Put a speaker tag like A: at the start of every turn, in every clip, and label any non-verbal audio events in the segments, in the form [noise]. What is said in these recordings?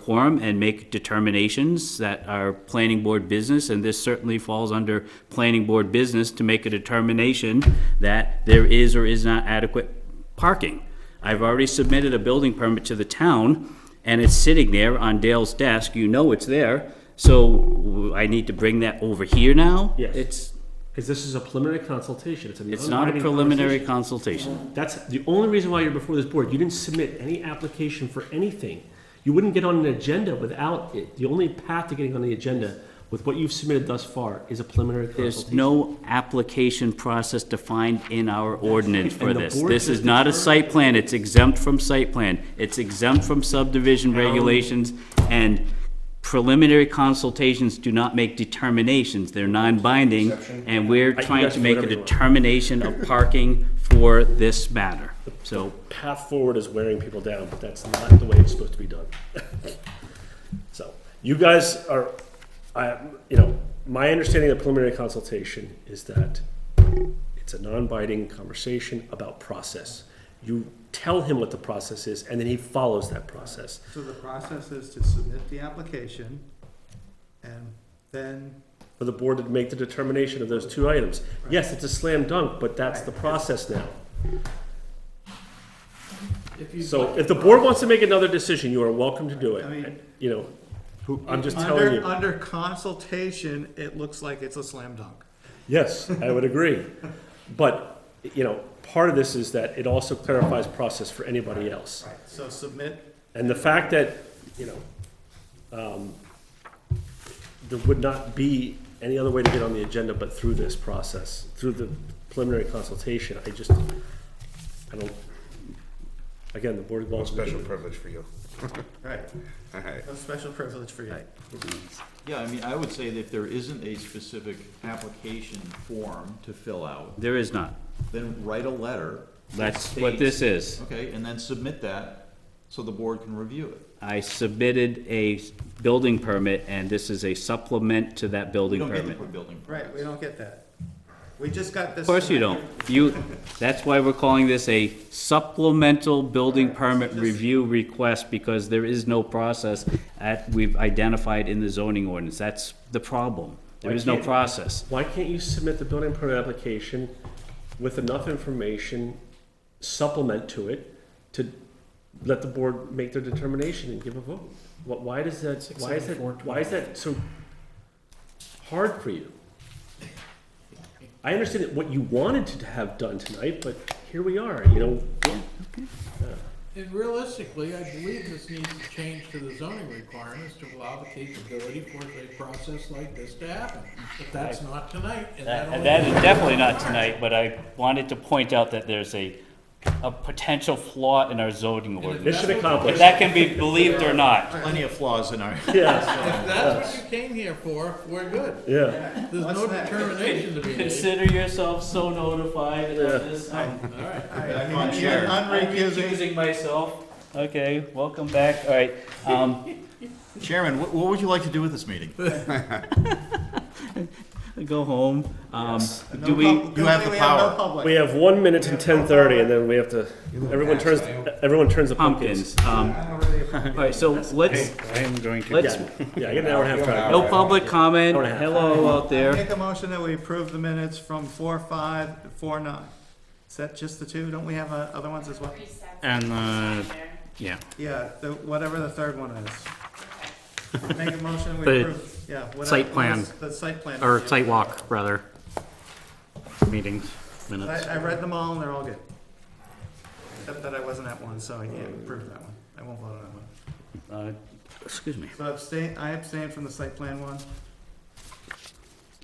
A: quorum and make determinations that are planning board business, and this certainly falls under planning board business to make a determination that there is or is not adequate parking. I've already submitted a building permit to the town, and it's sitting there on Dale's desk, you know it's there, so I need to bring that over here now?
B: Yes.
A: It's,
B: Because this is a preliminary consultation. It's, an
A: it's not a
B: unbinding
A: preliminary
B: conversation.
A: consultation.
B: That's the only reason why you're before this board. You didn't submit any application for anything. You wouldn't get on an agenda without it. The only path to getting on the agenda with what you've submitted thus far is a preliminary
A: There's
B: consultation.
A: no application process defined in our ordinance for
B: And the
A: this.
B: board
A: This is
B: just
A: not a
B: determined-
A: site plan, it's exempt from site plan, it's exempt from subdivision regulations, and preliminary consultations do not make determinations, they're non-binding, and we're
C: can
A: trying
C: ask
A: to
C: you
A: make a
C: whatever you want.
A: determination of parking for this matter, so.
C: path forward is wearing people down, but that's not the way it's supposed to be done. [laughs] So, you guys are, I, you know, my understanding of preliminary consultation is that it's a non-binding conversation about process. You tell him what the process is, and then he follows that process.
D: So the process is to submit the application and then,
C: For the board to make the determination of those two items. Yes, it's a slam dunk, but that's the process now.
D: if you.
C: So, if the board wants to make another decision, you are welcome to do
D: I mean-
C: it. You know, who- I'm just
D: Under-
C: telling you.
D: Under consultation, it looks like it's a slam dunk.
C: Yes, I would agree. But, you know, part of this is that it also clarifies process for anybody else.
D: Right. So submit,
C: And the fact that, you know, um, there would not be any other way to get on the agenda but through this process, through the preliminary consultation, I just, I don't, again, the board.
E: A special privilege for you.
D: right,
E: All right.
D: a special privilege for you.
F: Yeah, I mean, I would say that if there isn't a specific application form to fill out,
A: There is not.
F: then write a letter. that
A: That's what
F: states-
A: this is.
F: Okay, and then submit that so the board can review it.
A: I submitted a building permit, and this is a supplement to that
F: We
A: building
F: don't get the
A: permit.
F: building permits.
D: Right, we don't get that. We just got this.
A: Of course you don't. You, that's why we're calling this a supplemental building permit review request, because there is no process that we've identified in the zoning ordinance. That's the problem. There is no process.
C: Why can't you submit the building permit application with enough information, supplement to it, to let the board make their determination and give a vote? What, why does that, why is that, why is that so hard for you? I understand that what you wanted to have done tonight, but here we are, you know,
G: And realistically, I believe this needs to change to the zoning requirements to allow the capability for a process like this to happen. But that's not tonight, and that only.
A: That is definitely not tonight, but I wanted to point out that there's a, a potential flaw in our zoning ordinance.
C: mission
A: If
C: accomplished.
A: that can be believed or not.
F: Plenty of flaws in our. [laughs]
C: Yeah,
G: If that's what you came here for, we're good.
C: [laughs] yeah.
G: There's no
D: What's next?
G: determination to be made.
A: Consider yourself so notified of this. I'm
G: All right.
D: I'm unrecusing.
A: recusing myself. Okay, welcome back. All right. Um,
F: Chairman, what, what would you like to do with this meeting?
A: go home. Um,
D: No
A: do we,
D: pub-
F: you have the
D: we no
F: power.
D: public.
C: We have one minute to ten thirty and then we have to, everyone turns, everyone turns the pumpkins.
A: pumpkins. Um, all right, so let's,
E: I'm going to.
A: let's,
C: Yeah, I got an hour and a half. back.
A: no public comment.
C: Hour and a half.
A: Hello out there.
D: Make a motion that we approve the minutes from four, five, to four, nine. Is that just the two? Don't we have uh, other ones as well?
E: And, uh, yeah.
D: Yeah, the, whatever the third one is. Make a motion, we
E: The
D: approve, yeah. whatever-
E: site plan.
D: The site plan.
E: Or site walk, rather. Meetings, minutes.
D: I, I read them all and they're all good. Except that I wasn't at one, so I can't approve that one. I won't vote on that one.
A: Uh, Excuse me.
D: So abstain, I abstained from the site plan one.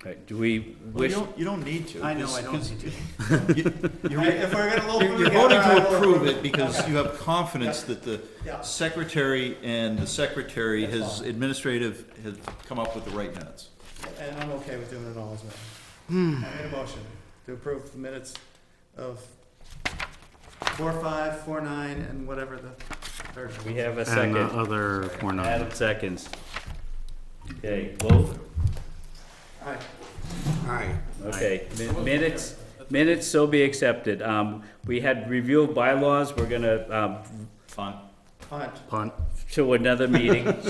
A: All right, do we
F: You
A: wish,
F: don't, you don't need to.
D: I know, I
F: because-
D: don't.
F: because
D: [laughs]
F: you-
D: I- If we're gonna look.
F: You're you're voting to approve it because you have confidence that the
D: Yeah.
F: secretary and the secretary has administrative, has come up with the right minutes.
D: And I'm okay with doing it all as well. I made a motion to approve the minutes of four, five, four, nine, and whatever the third one.
A: we have a
E: And the
A: second?
E: other were not.
A: Adam seconds. Okay, vote.
D: All right.
E: Aye.
A: Okay, min- minutes, minutes so be accepted. Um, we had review of bylaws. We're gonna, um,
F: Fine.
D: Hunt.
E: Punt.
A: [laughs] to another meeting.